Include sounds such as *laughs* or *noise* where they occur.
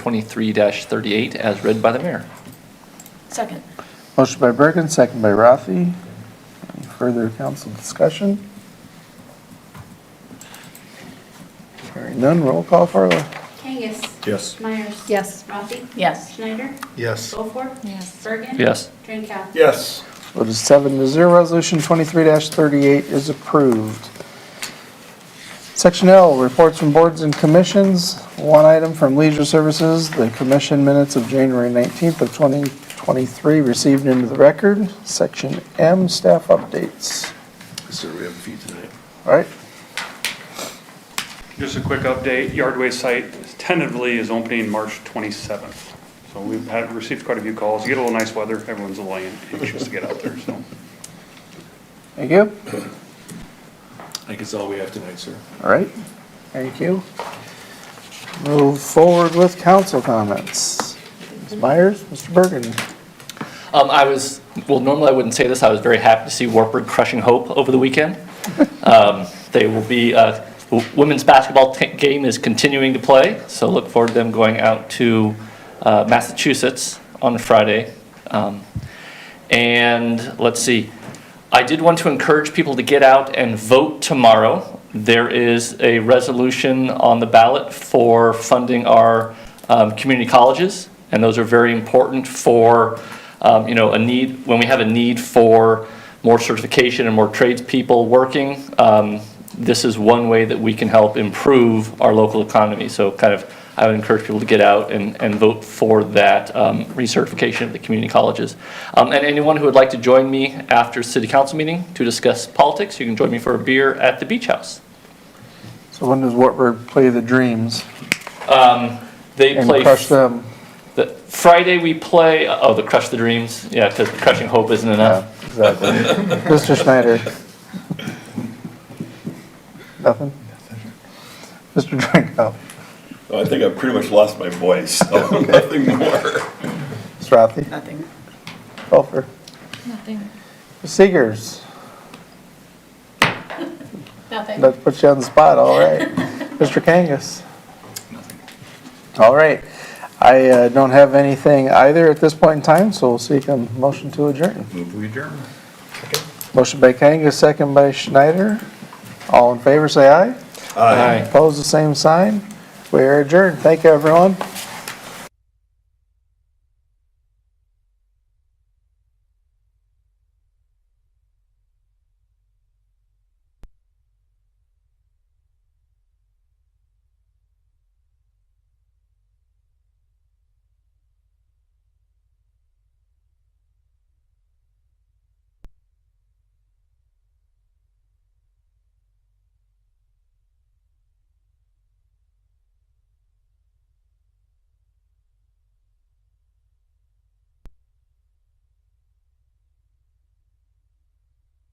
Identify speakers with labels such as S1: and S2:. S1: twenty-three thirty-eight as read by the mayor.
S2: Second.
S3: Motion by Bergen, second by Rafi. Any further council discussion? Hearing none, roll call, Farla.
S4: Kangas.
S5: Yes.
S4: Myers.
S2: Yes.
S4: Rafi.
S2: Yes.
S4: Schneider.
S5: Yes.
S4: Gofor.
S2: Yes.
S4: Bergen.
S1: Yes.
S4: Drinkow.
S5: Yes.
S3: Vote is seven to zero, resolution twenty-three thirty-eight is approved. Section L, reports from boards and commissions. One item from Leisure Services, the commission minutes of January nineteenth of twenty twenty-three received into the record. Section M, staff updates.
S5: Sir, we have a few tonight.
S3: All right,
S6: Just a quick update, Yardway site tentatively is opening March 27th. So we've had, received quite a few calls, you get a little nice weather, everyone's a little anxious to get out there, so.
S3: thank you.
S5: I think it's all we have tonight, sir.
S3: All right, thank you. Move forward with council comments. Ms. Myers, Mr. Bergen.
S1: Um, I was, well, normally I wouldn't say this, I was very happy to see Warburg crushing Hope over the weekend. Um, They will be, uh, w- women's basketball t- game is continuing to play, so look forward to them going out to uh, Massachusetts on Friday. Um, And let's see, I did want to encourage people to get out and vote tomorrow. There is a resolution on the ballot for funding our um, community colleges, and those are very important for, um, you know, a need, when we have a need for more certification and more tradespeople working, um, this is one way that we can help improve our local economy. So kind of, I would encourage people to get out and, and vote for that um, recertification of the community colleges. Um, And anyone who would like to join me after city council meeting to discuss politics, you can join me for a beer at the beach house.
S3: So when does Wartburg play the Dreams
S1: Um, They
S3: and
S1: play,
S3: crush them?
S1: the- Friday we play, oh, the Crush the Dreams, yeah, because Crushing Hope isn't enough.
S3: Yeah, exactly. *laughs* Mr. Schneider. Nothing? Mr. Drinkoff,
S7: I think I pretty much lost my voice, so *laughs* nothing more.
S3: Ms. Rafi,
S2: Nothing.
S3: Helfer,
S2: Nothing.
S3: Ms. Seegers.
S2: Nothing.
S3: That puts you on the spot, all right. Mr. Kangas? All right. I uh, don't have anything either at this point in time, so we'll seek a motion to adjourn.
S7: Move we adjourn.
S3: Motion by Kangas, second by Schneider. All in favor, say aye.
S1: Aye.
S3: Opposed, the same sign. We are adjourned. Thank you, everyone.